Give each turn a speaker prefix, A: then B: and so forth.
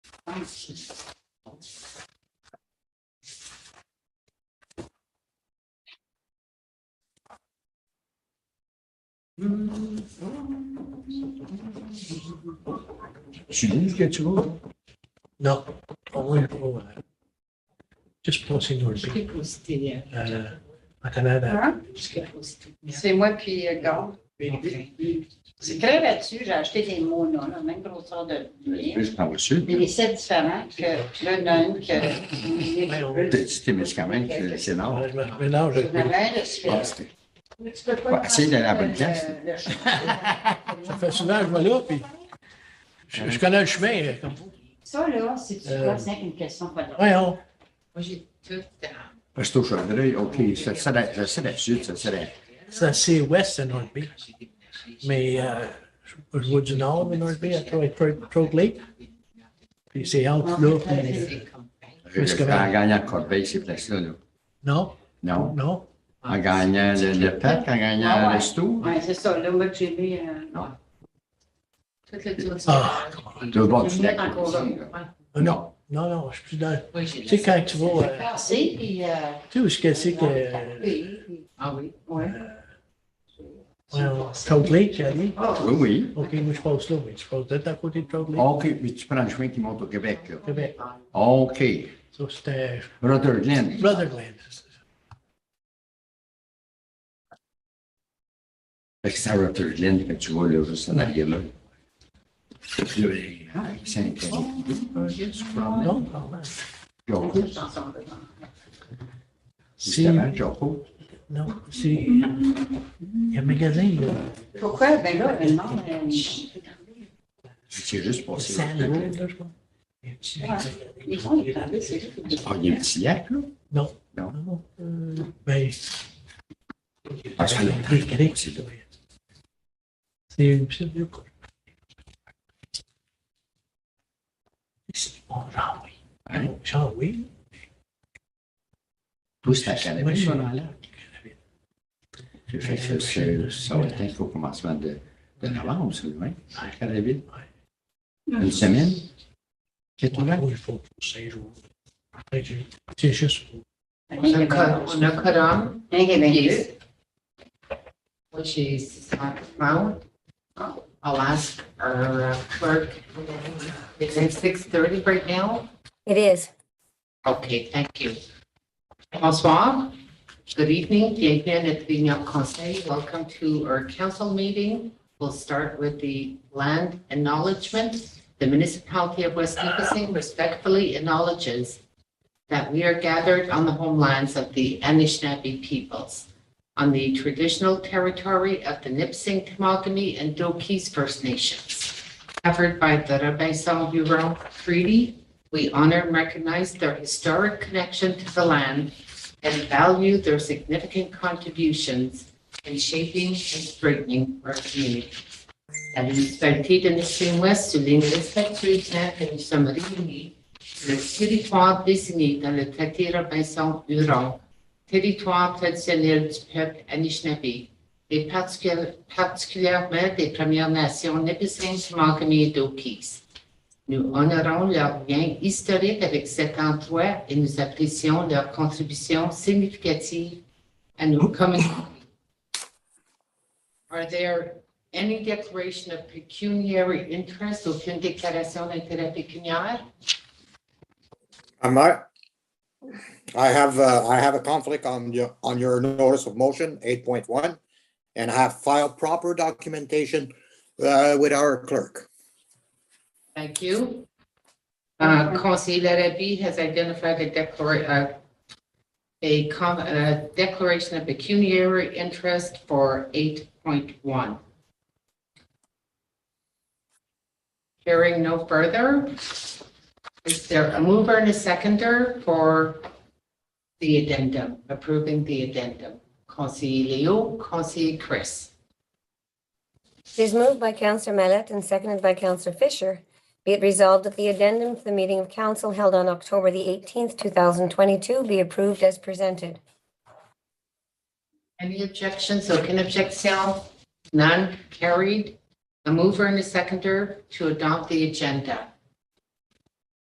A: She didn't get you over.
B: No, only for, uh, just pointing au
C: Je l'ai posté. euh,
B: euh, en Canada.
C: hein,
B: Parce que-
C: C'est moi puis euh, Gord. C'est très là-dessus. J'ai acheté des mots, là, la même grosseur de livre.
A: Plus en voiture.
C: Mais les sept différents que là, il y en a une que.
A: T'as dit Témiscamingue, c'est- c'est Ah, énorme.
B: Ouais, je me mélange
C: Il y en
B: avec-
C: avait un de Suisse. Tu peux pas
A: Ouais, essaye d'aller à la bonne place.
C: Euh, Le- le chemin.
B: Ça fait souvent, je vais là, puis je, je connais le chemin. euh, Comme...
C: Ça, là, c'est tu
B: Euh,
C: vois, c'est une question pas drôle.
B: Voyons.
C: Moi, j'ai tout. euh,
A: Parce que au Chaudreuil, OK, ça c'est la, ça, c'est la sud, ça c'est la.
B: C'est assez ouest de North Bay. Mais euh, je, je vois du nord de North Bay, à Troy, Troy, Troy Lake. Puis c'est entre là. puis- Témiscamingue.
A: En gagnant Corbeil, ces places-là, là.
B: Non,
A: Non.
B: non.
A: En gagnant le, le PAC, en
C: Ah
A: gagnant
C: ouais.
A: le resto.
C: Ouais, c'est ça. Là, moi, que j'ai mis. euh,
A: Non.
C: Tout le tour du
B: Ah,
C: village.
A: Le bord du
C: J'ai mis
A: lac.
C: encore là.
A: aussi, là.
C: Ouais.
A: Non.
B: Non, non, je suis plus dans.
D: Oui, j'ai
B: Tu sais,
D: la-
B: quand tu vas. euh,
C: Passé, Ah, puis. euh,
B: tu sais où est-ce que c'est que. euh,
C: Oui,
D: Ah oui.
C: oui.
B: voyons, Troy Lake, j'ai dit?
A: Oui, oui.
B: OK, moi, je passe là, mais tu passes d'être à côté de Troy Lake.
A: OK, mais tu prends le chemin qui monte au Québec, là.
B: Québec.
A: OK.
B: Ça, c'était
A: Rutherglen.
B: Rutherglen.
A: Fait que c'est à Rutherglen que tu vois, là, juste en arrière là. Puis là, ben, ah, c'est un canon.
B: Non, pardon.
A: Jaco,
C: Cette chanson-là.
B: C'est.
A: justement, Jaco.
B: Non, c'est. Il y a un magasin, là.
C: Pourquoi? Ben là, elle demande. euh,
A: C'est juste passé.
B: Sand Road, là, je crois. É,
C: Ils font des travaux, c'est juste. des-
A: Ah, il y a un petit lac, là.
B: Non.
A: Non.
B: Non. Euh, Ben.
A: Ah, c'est là.
B: Québec,
A: C'est là.
B: C'est une petite vieux quoi. C'est bon, genre oui.
A: Hein?
B: Genre oui.
A: Tout c'est à Canada.
B: Moi, je suis
A: ça.
B: dans l'air.
A: Fait que c'est- ça va être au commencement de, de novembre, c'est le vingt,
B: é.
A: à la ville. Une semaine? Quatre
B: Ouais,
A: mois?
B: Il faut pour cinq jours. Après, j'ai- C'est juste.
D: On a Cor- on a Corum,
C: Un Québécois.
D: yes. Moi, j'ai Cicero Mount. I'll ask our uh, clerk. Is it six thirty right now?
E: It is.
D: Okay, thank you. Bonsoir. Good evening. Bienvenue à notre réunion conseil. Welcome to our council meeting. We'll start with the land acknowledgement. The municipality of West Nipissing respectfully acknowledges that we are gathered on the homelands of the Anishinaabe peoples, on the traditional territory of the Nipissing, Tamogami, and Doki's First Nations, covered by the Rabaisaw Bureau Treaty we honor and recognize their historic connection to the land and value their significant contributions in shaping and strengthening our community. La municipalité de Nissing-Ouest souligne respectueusement que nous sommes réunis sur le territoire désigné dans le traité Robinson-Huron, territoire traditionnel du peuple Anishinaabe, et particuli- particulièrement des Premières Nations Nipissing-Tamagami et Dokis. Nous honorons leur lien historique avec cet endroit et nous apprécions leur contribution significative à nos communautés. Are there any declaration of pecuniary interest, aucune déclaration d'intérêt pécuniaire?
F: I'm not. I have, uh, I have a conflict on your, on your notice of motion, eight point one, and I have filed proper documentation, uh, with our clerk.
D: Thank you. Uh, Conseil Larrabee has identified a declara- uh, a com- a declaration of pecuniary interest for 8.1. Hearing no further, is there a mover and a seconder for the addendum, approving the addendum? Conseil Leo, Conseil Chris.
E: It is moved by Counselor Mallett and seconded by Counselor Fisher. Be it resolved that the addendum to the meeting of council held on October the 18th, 2022 be approved as presented.
D: Any objections, aucune objection? None carried. A mover and a seconder to adopt the agenda.